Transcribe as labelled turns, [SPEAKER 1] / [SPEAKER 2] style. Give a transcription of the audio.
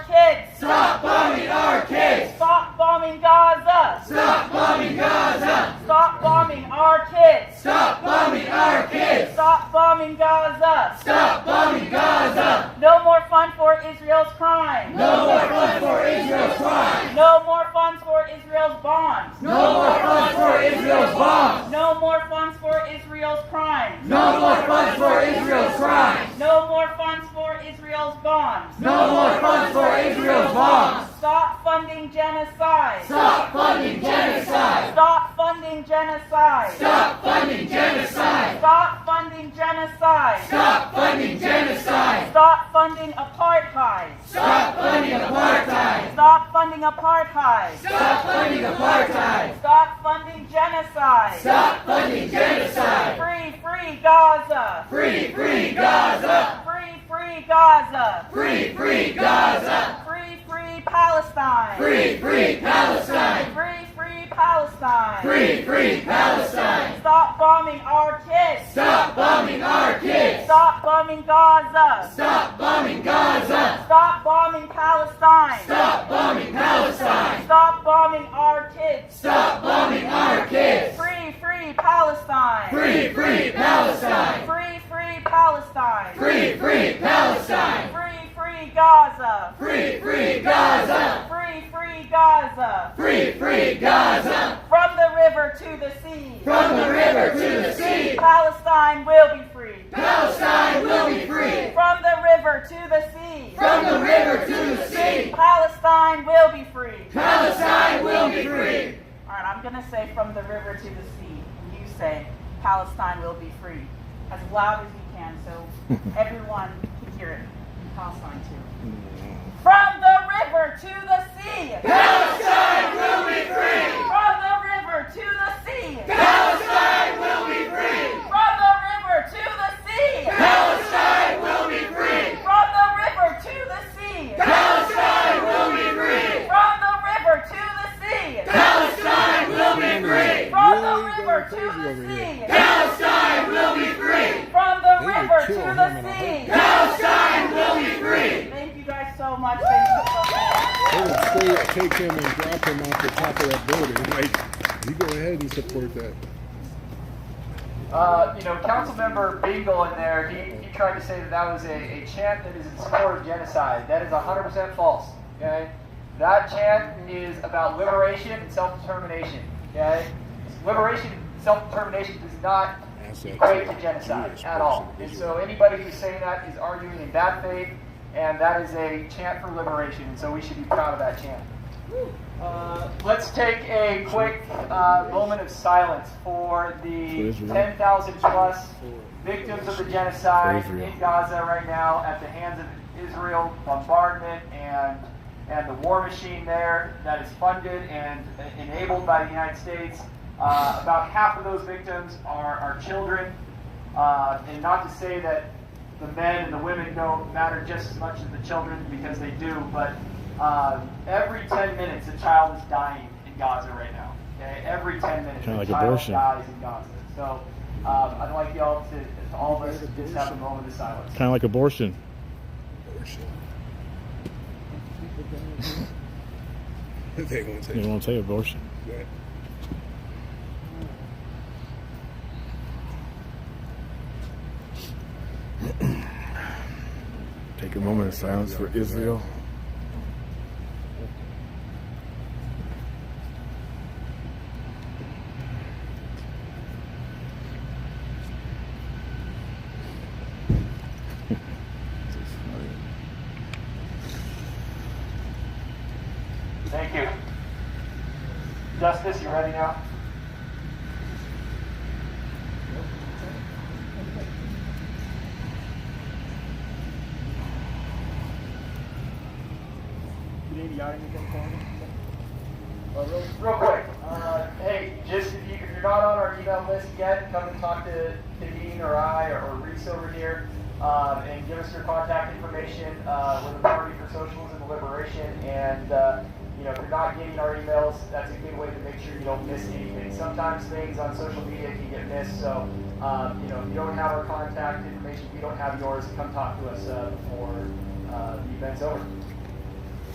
[SPEAKER 1] No more funds for Israel's crime.
[SPEAKER 2] No more funds for Israel's bonds.
[SPEAKER 1] No more funds for Israel's bombs.
[SPEAKER 2] No more funds for Israel's crimes.
[SPEAKER 1] No more funds for Israel's crimes.
[SPEAKER 2] No more funds for Israel's bonds.
[SPEAKER 1] No more funds for Israel's bombs.
[SPEAKER 2] Stop funding genocide.
[SPEAKER 1] Stop funding genocide.
[SPEAKER 2] Stop funding genocide.
[SPEAKER 1] Stop funding genocide.
[SPEAKER 2] Stop funding genocide.
[SPEAKER 1] Stop funding genocide.
[SPEAKER 2] Stop funding apartheid.
[SPEAKER 1] Stop funding apartheid.
[SPEAKER 2] Stop funding apartheid.
[SPEAKER 1] Stop funding apartheid.
[SPEAKER 2] Stop funding genocide.
[SPEAKER 1] Stop funding genocide.
[SPEAKER 2] Free, free Gaza.
[SPEAKER 1] Free, free Gaza.
[SPEAKER 2] Free, free Gaza.
[SPEAKER 1] Free, free Gaza.
[SPEAKER 2] Free, free Palestine.
[SPEAKER 1] Free, free Palestine.
[SPEAKER 2] Free, free Palestine.
[SPEAKER 1] Free, free Palestine.
[SPEAKER 2] Stop bombing our kids.
[SPEAKER 1] Stop bombing our kids.
[SPEAKER 2] Stop bombing Gaza.
[SPEAKER 1] Stop bombing Gaza.
[SPEAKER 2] Stop bombing Palestine.
[SPEAKER 1] Stop bombing Palestine.
[SPEAKER 2] Stop bombing our kids.
[SPEAKER 1] Stop bombing our kids.
[SPEAKER 2] Free, free Palestine.
[SPEAKER 1] Free, free Palestine.
[SPEAKER 2] Free, free Palestine.
[SPEAKER 1] Free, free Palestine.
[SPEAKER 2] Free, free Gaza.
[SPEAKER 1] Free, free Gaza.
[SPEAKER 2] Free, free Gaza.
[SPEAKER 1] Free, free Gaza.
[SPEAKER 2] From the river to the sea.
[SPEAKER 1] From the river to the sea.
[SPEAKER 2] Palestine will be free.
[SPEAKER 1] Palestine will be free.
[SPEAKER 2] From the river to the sea.
[SPEAKER 1] From the river to the sea.
[SPEAKER 2] Palestine will be free.
[SPEAKER 1] Palestine will be free.
[SPEAKER 2] All right, I'm going to say from the river to the sea. And you say Palestine will be free. As loud as you can so everyone can hear it. And Palestine too. From the river to the sea.
[SPEAKER 1] Palestine will be free.
[SPEAKER 2] From the river to the sea.
[SPEAKER 1] Palestine will be free.
[SPEAKER 2] From the river to the sea.
[SPEAKER 1] Palestine will be free.
[SPEAKER 2] From the river to the sea.
[SPEAKER 1] Palestine will be free.
[SPEAKER 2] From the river to the sea.
[SPEAKER 1] Palestine will be free.
[SPEAKER 2] From the river to the sea.
[SPEAKER 1] Palestine will be free.
[SPEAKER 2] From the
[SPEAKER 3] They would
[SPEAKER 2] river to
[SPEAKER 3] kill him in
[SPEAKER 2] the
[SPEAKER 3] a
[SPEAKER 2] sea.
[SPEAKER 1] Palestine will be free.
[SPEAKER 2] Thank you guys so much. Thank you so much.
[SPEAKER 3] They would still take him and drop him off the top of that building. Like, you go ahead and support that.
[SPEAKER 4] Uh, you know, Councilmember Beagle in there, he, he tried to say that that was a, a chant that is in support of genocide. That is 100% false, okay? That chant is about liberation and self-determination, okay? Liberation and self-determination does not equate to genocide at all. And so anybody who's saying that is arguing in bad faith, and that is a chant for liberation, and so we should be proud of that chant. Uh, let's take a quick uh, moment of silence for the 10,000 plus victims of the genocide in Gaza right now at the hands of Israel bombardment and and the war machine there that is funded and enabled by the United States. Uh, about half of those victims are, are children. Uh, and not to say that the men and the women don't matter just as much as the children because they do, but um, every 10 minutes a child is dying in Gaza right now. Okay? Every 10 minutes a
[SPEAKER 5] Kinda like
[SPEAKER 4] child
[SPEAKER 5] abortion.
[SPEAKER 4] dies in Gaza. So um, I'd like y'all to, to all of us, just have a moment of silence.
[SPEAKER 5] Kind of like abortion.
[SPEAKER 3] They won't take
[SPEAKER 5] You won't say abortion.
[SPEAKER 3] that.
[SPEAKER 6] Take a moment of silence for Israel.
[SPEAKER 4] Thank you. Justice, you ready now? Uh, real, real quick, uh, hey, just if, you, if you're not on our email list yet, come and talk to, to Dean or I or, or Reese over here um, and give us your contact information. Uh, we're the Party for Socialism and Liberation, and uh, you know if you're not getting our emails, that's a good way to make sure you don't miss anything. Sometimes things on social media can get missed, so um, you know if you don't have our contact information, we don't have yours. Come talk to us uh, before uh, the event's over.